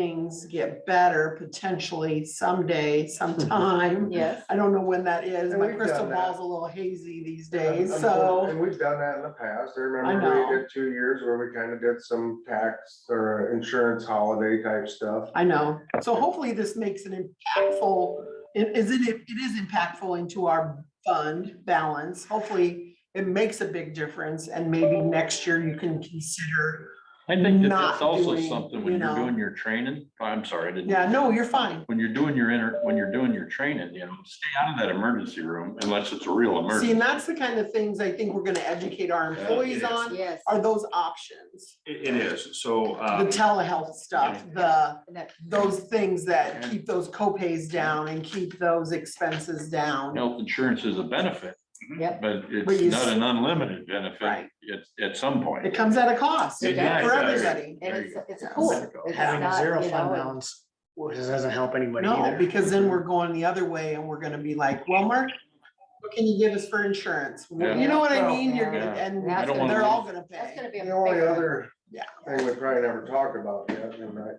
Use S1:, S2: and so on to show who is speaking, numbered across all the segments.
S1: things get better potentially someday, sometime.
S2: Yes.
S1: I don't know when that is.
S3: And
S1: My
S3: we've
S1: crystal
S3: done that.
S1: ball's a little hazy these
S3: And-
S1: days,
S3: and-
S1: so.
S3: And we've done that in the past. I
S1: know.
S3: remember we did two years where we kind of did some tax or insurance holiday type stuff.
S1: I know. So hopefully this makes an impactful, it is it, it is impactful into our fund balance. Hopefully it makes a big difference and maybe next year you can consider.
S4: I think that
S1: not
S4: that's also
S1: doing,
S4: something
S1: you
S4: when you're
S1: know.
S4: doing your training, oh, I'm sorry, I didn't.
S1: Yeah, no, you're fine.
S4: When you're doing your inter, when you're doing your training, you know, stay out of that emergency room unless it's a real
S1: See,
S4: emergency.
S1: and that's the kind of things I think we're gonna educate our
S5: Yeah,
S1: employees
S5: it is.
S1: on,
S2: Yes.
S1: are those options.
S5: It, it is, so,
S1: The
S5: um,
S1: telehealth stuff, the,
S2: That-
S1: those things that keep those copays down and keep those expenses down.
S4: Health insurance is a benefit,
S5: Mm-hmm.
S2: Yep.
S4: but
S1: But you
S4: it's not
S1: s-
S4: an unlimited benefit
S1: Right.
S4: at, at some point.
S1: It comes at a cost
S2: It
S1: for
S2: does.
S1: everybody.
S2: And
S4: There
S2: it's,
S4: you
S2: it's
S1: Yeah.
S2: cool.
S4: Having
S2: It's
S3: Having a
S2: not,
S3: zero
S2: you
S3: fund
S2: know,
S3: balance, well, this doesn't help anybody
S1: No,
S3: either.
S1: because then we're going the other way and we're gonna be like, well, Mark, what can you give us for insurance? Well, You know what I
S3: Yeah.
S1: mean? You're gonna,
S4: Yeah.
S1: and
S2: I don't
S4: wanna
S1: they're all
S4: lose-
S1: gonna pay.
S2: That's gonna be a
S3: The only
S2: big one.
S3: other
S1: Yeah.
S3: thing we probably never talked about yet, and I,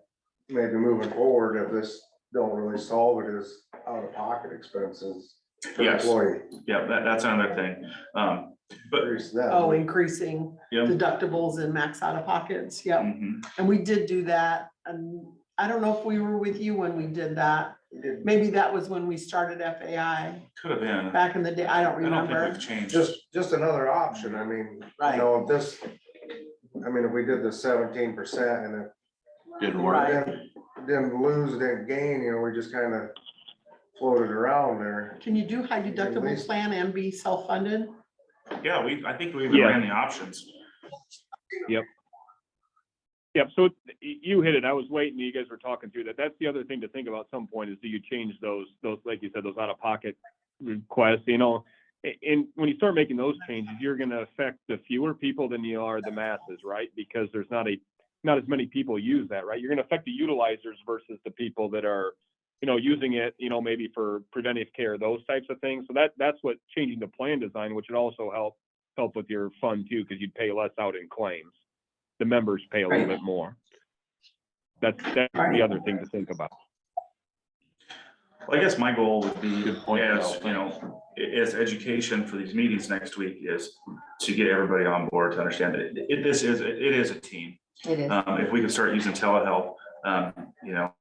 S3: maybe moving forward, if this don't really solve it, is out-of-pocket expenses. per
S5: Yes.
S3: Employee,
S5: yeah, that, that's another thing, um, but,
S3: increase that.
S1: Oh, increasing
S5: yeah.
S1: deductibles and max out of pockets, yep.
S5: mhm.
S1: And we did do that, and I don't know if we were with you when we did that.
S3: We did
S1: Maybe that was when we started FAI
S5: Could have been, I
S1: back in the day, I don't
S5: don't think
S1: remember.
S5: we've changed.
S3: Just, just another option, I mean, you
S1: Right.
S3: know, if this, I mean, if we did the seventeen percent and it
S4: Didn't
S1: Right.
S4: work.
S3: didn't, didn't lose, didn't gain, you know, we just kind of floated around there.
S1: Can you do high deductible
S3: least-
S1: plan and be self-funded?
S5: Yeah, we, I think we even
S6: Yeah.
S5: ran the options.
S6: Yep, so it's- y- you hit it. I was waiting. You guys were talking through that. That's the other thing to think about at some point is do you change those, those, like you said, those out of pocket requests, you know? A- And when you start making those changes, you're gonna affect the fewer people than you are the masses, right? Because there's not a, not as many people use that, right? You're gonna affect the utilizers versus the people that are, you know, using it, you know, maybe for preventive care, those types of things. So that, that's what changing the plan design, which would also help, help with your fund too, because you'd pay less out in claims the members pay a little
S1: Right.
S6: bit more. That's, that's
S1: Right.
S6: the other thing to think about.
S5: Well, I guess my goal would be,
S4: Good point,
S5: as,
S4: Al.
S5: you know, i- as education for these meetings next week is to get everybody on board to understand that it- it, this is, it is a team.
S2: It is.
S5: Um, if we could start using telehealth, um, you know,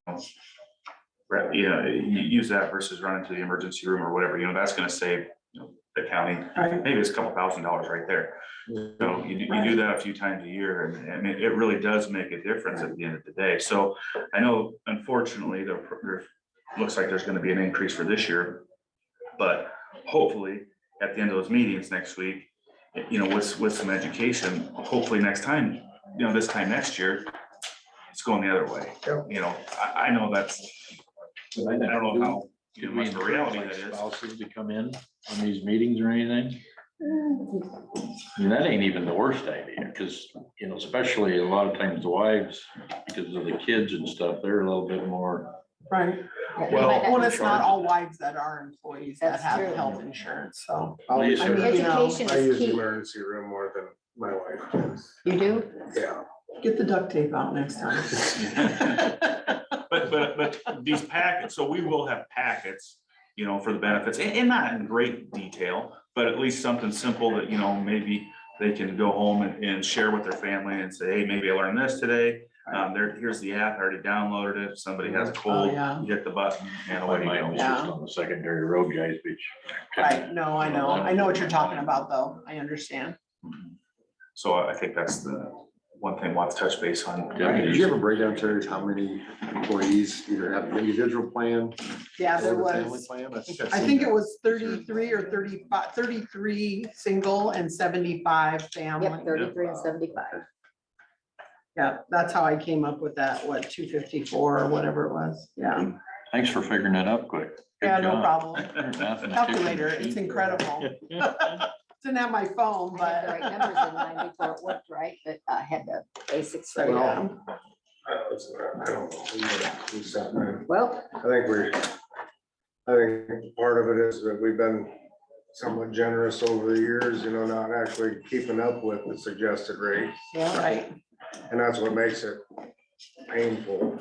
S5: right, you know, you use that versus running to the emergency room or whatever, you know, that's gonna save, you know, the county,
S1: Right.
S5: maybe it's a couple thousand dollars right there. So you, do- you do that a few times a year and, and it, it really does make a difference at the end of the day. So I know unfortunately, there, there looks like there's gonna be an increase for this year. But hopefully, at the end of those meetings next week, you know, with, with some education, hopefully next time, you know, this time next year, it's going the other way.
S3: Yep.
S5: You know, I, I know that's, I don't know how,
S4: Could we
S5: much of a
S4: encourage
S5: reality
S4: like
S5: that is.
S4: spouses to come in on these meetings or anything? I mean, that ain't even the worst idea, because, you know, especially a lot of times the wives, because of the kids and stuff, they're a little bit more.
S1: Right.
S2: Yeah,
S5: well,
S2: might not-
S1: Well, it's not all wives that are employees that
S2: That's
S1: have
S2: true.
S1: health insurance, so.
S3: I use
S4: I mean,
S3: the-
S2: Education
S3: I
S2: is
S3: use the
S2: key.
S3: emergency room more than my wife does,
S2: You do?
S3: yeah.
S1: Get the duct tape out next time.
S5: But, but, but these packets, so we will have packets, you know, for the benefits, and, and not in great detail, but at least something simple that, you know, maybe they can go home and, and share with their family and say, hey, maybe I learned this today. Um, there, here's the app, I already downloaded it, if somebody has a
S1: Oh,
S5: cold,
S1: yeah.
S5: you hit the button and away
S4: Like
S5: you
S4: my
S5: go.
S4: was just on the secondary road, guys, which.
S1: Right, no, I know, I know what you're talking about, though, I understand.
S5: So I I think that's the one thing we'll have to touch base on.
S4: Yeah,
S7: Did you ever break down, Terry, how many employees either have an individual plan
S1: Yeah,
S7: or
S1: there
S7: the family
S1: was,
S7: plan? think I've
S1: I
S7: seen
S1: think it
S7: that.
S1: was thirty-three or 35 33 single and seventy-five
S2: Yep,
S1: family.
S2: thirty-three and seventy-five.
S1: Yeah, that's how I came up with that, what, two fifty-four or whatever it was, yeah.
S4: Thanks for figuring that up quick. Good
S1: Yeah, no
S4: job.
S1: problem.
S4: You're a mathematician.
S1: Calculator, it's incredible. Didn't have my phone,
S2: I had the
S1: but.
S2: right numbers in mind before it worked right, but I had the basics.
S1: So, yeah.
S3: I was- I don't know. We were- we sat there.
S2: Well,
S3: I think we're, I think part of it is that we've been somewhat generous over the years, you know, not actually keeping up with the suggested rate.
S2: yeah,
S1: Right,
S3: And that's what makes it painful.